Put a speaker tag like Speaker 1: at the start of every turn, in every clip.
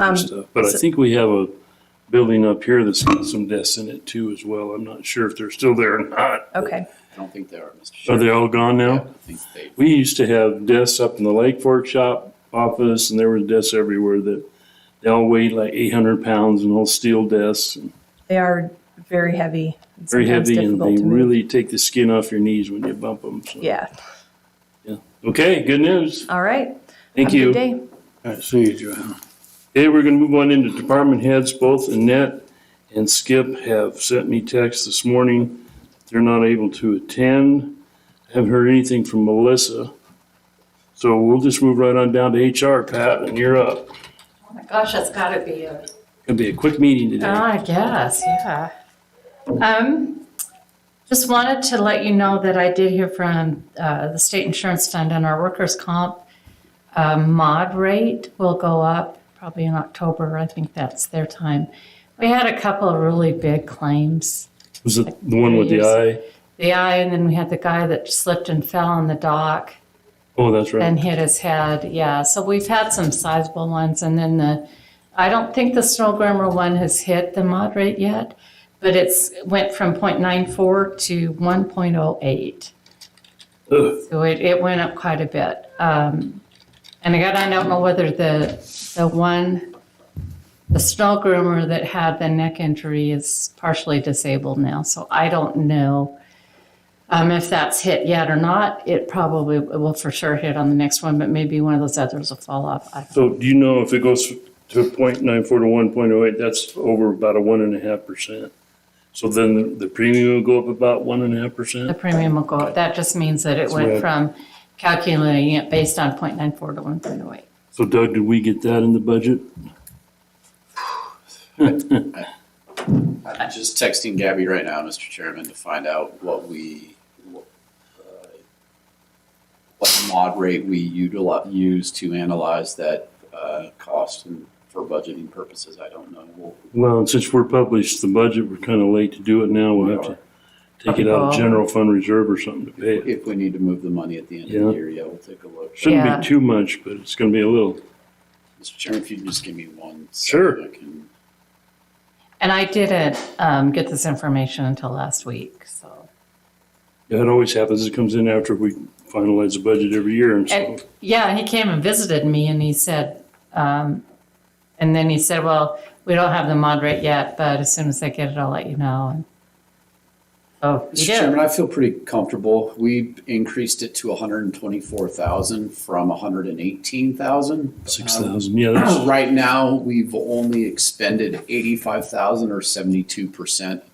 Speaker 1: Um,
Speaker 2: and stuff. But I think we have a building up here that's got some desks in it too as well. I'm not sure if they're still there or not.
Speaker 1: Okay,
Speaker 3: I don't think they are,
Speaker 2: Are
Speaker 3: Mr. Chair.
Speaker 2: they all gone
Speaker 3: I
Speaker 2: now?
Speaker 3: think they,
Speaker 2: We used to have desks up in the Lake Fork shop office and there were desks everywhere that they all weighed like eight hundred pounds and all steel desks. and
Speaker 1: they are very heavy. and
Speaker 2: Very
Speaker 1: sometimes
Speaker 2: heavy and
Speaker 1: difficult
Speaker 2: they
Speaker 1: to move.
Speaker 2: really take the skin off your knees when you bump them.
Speaker 1: Yeah,
Speaker 2: Okay, good news.
Speaker 1: all right.
Speaker 2: Thank
Speaker 1: Have a
Speaker 2: you.
Speaker 1: good day.
Speaker 2: All right, see you, Joanna. Okay, we're gonna move on into department heads. Both Annette and Skip have sent me texts this morning. They're not able to attend. Haven't heard anything from Melissa. So we'll just move right on down to HR, Pat, and you're up.
Speaker 4: Oh my gosh, that's gotta be a.
Speaker 2: Gonna be a quick meeting today.
Speaker 4: Oh, I guess, yeah. Um, just wanted to let you know that I did hear from, uh, the state insurance fund on our workers' comp. Uh, mod rate will go up probably in October. I think that's their time. We had a couple of really big claims.
Speaker 2: Was it the one with the eye?
Speaker 4: The eye, and then we had the guy that slipped and fell on the dock.
Speaker 2: Oh, that's right.
Speaker 4: and hit his head. Yeah, so we've had some sizable ones, and then the I don't think the snow grommer one has hit the mod rate yet, but it's went from 0.94 to 1.08.
Speaker 2: Ugh.
Speaker 4: So it, it went up quite a bit. Um, and again, I don't know whether the the one the snow groomer that had the neck injury is partially disabled now, so I don't know um, if that's hit yet or not. It probably it will for sure hit on the next one, but maybe one of those others will fall off. I,
Speaker 2: So do you know if it goes to point nine four to one point oh eight, that's over about a one and a half percent? So then the- the premium will go up about one and a half
Speaker 4: the
Speaker 2: percent?
Speaker 4: premium will go up. That just means that it
Speaker 2: right.
Speaker 4: went from calculating it based on 0.94 to 1.08.
Speaker 2: So Doug, did we get that in the budget?
Speaker 3: I'm just texting Gabby right now, Mr. Chairman, to find out what we, what, uh, what mod rate we utilize, use to analyze that, uh, cost and for budgeting purposes. I don't know. We'll-
Speaker 2: Well, and since we're published the budget, we're kind of late to do it now. We'll have to take it out of
Speaker 4: Oh.
Speaker 2: general fund reserve or something to pay it.
Speaker 3: If we need to move the money at the end of
Speaker 2: Yeah.
Speaker 3: the year, yeah, we'll take a look.
Speaker 2: Shouldn't
Speaker 4: Yeah.
Speaker 2: be too much, but it's going to be a little.
Speaker 3: Mr. Chairman, if you can just give me one.
Speaker 2: Sure.
Speaker 3: second, I can-
Speaker 4: And I didn't um, get this information until last week. So,
Speaker 2: It always happens. It comes in after we finalize the budget every year and so.
Speaker 4: and yeah, he came and visited me and he said, um, and then he said, well, we don't have the mod rate yet, but as soon as I get it, I'll let you know. And oh,
Speaker 3: Mr.
Speaker 4: you
Speaker 3: Chairman,
Speaker 4: did.
Speaker 3: I feel pretty comfortable. We increased it to hundred and twenty-four thousand from hundred and eighteen thousand.
Speaker 2: Six thousand, yeah, that's,
Speaker 3: Right now, we've only expended eighty-five thousand or seventy-two percent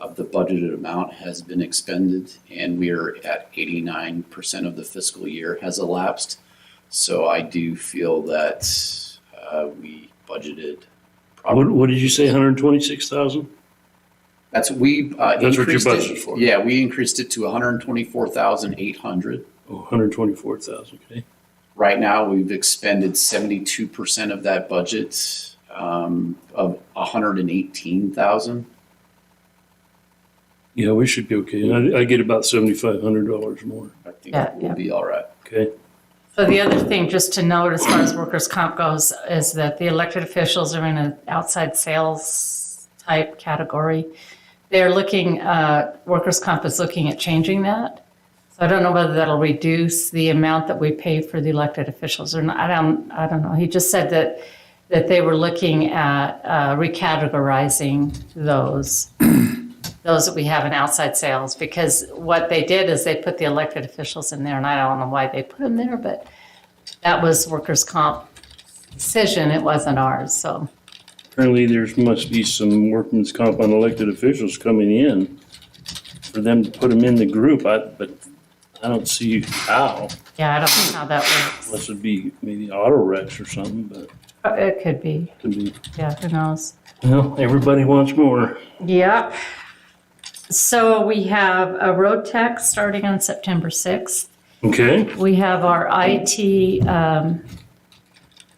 Speaker 3: of the budgeted amount has been expended, and we are at eighty-nine percent of the fiscal year has elapsed. So I do feel that uh, we budgeted.
Speaker 2: what,
Speaker 3: properly.
Speaker 2: what did you say, hundred and twenty-six thousand?
Speaker 3: That's we uh,
Speaker 2: That's what you
Speaker 3: increased
Speaker 2: budgeted
Speaker 3: it-
Speaker 2: for.
Speaker 3: Yeah, we increased it to one hundred twenty-four thousand eight hundred.
Speaker 2: Oh, hundred and twenty-four thousand, okay.
Speaker 3: Right now, we've expended seventy-two percent of that budget um, of one hundred and eighteen thousand.
Speaker 2: Yeah, we should be okay. I, I get about seventy-five hundred dollars more,
Speaker 3: I think
Speaker 4: Yeah,
Speaker 3: we'll
Speaker 4: yeah.
Speaker 3: be all right.
Speaker 2: okay?
Speaker 4: So the other thing just to note as far as workers' comp goes is that the elected officials are in an outside sales type category. They're looking, uh, workers' comp is looking at changing that. So I don't know whether that'll reduce the amount that we pay for the elected officials or not. I don't, I don't know. He just said that, that they were looking at, uh, recategorizing those, those that we have in outside sales, because what they did is they put the elected officials in there, and I don't know why they put them there, but that was workers' comp decision. It wasn't ours, so.
Speaker 2: Apparently, there's must be some workman's comp on elected officials coming in for them to put them in the group, I, but I don't see how.
Speaker 4: Yeah, I don't know how that works.
Speaker 2: Unless it'd be maybe auto wrecks or something, but
Speaker 4: Uh, It could be.
Speaker 2: could be,
Speaker 4: Yeah, who knows?
Speaker 2: well, everybody wants more.
Speaker 4: Yep. So we have a road tech starting on September 6th.
Speaker 2: Okay,
Speaker 4: We have our IT, um,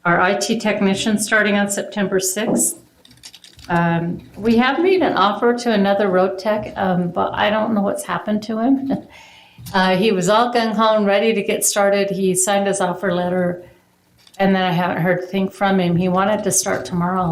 Speaker 4: our IT technician starting on September 6th. Um, We have made an offer to another road tech, um, but I don't know what's happened to him. Uh, He was all gung ho and ready to get started. He signed his offer letter And then I haven't heard a thing from him. He wanted to start tomorrow,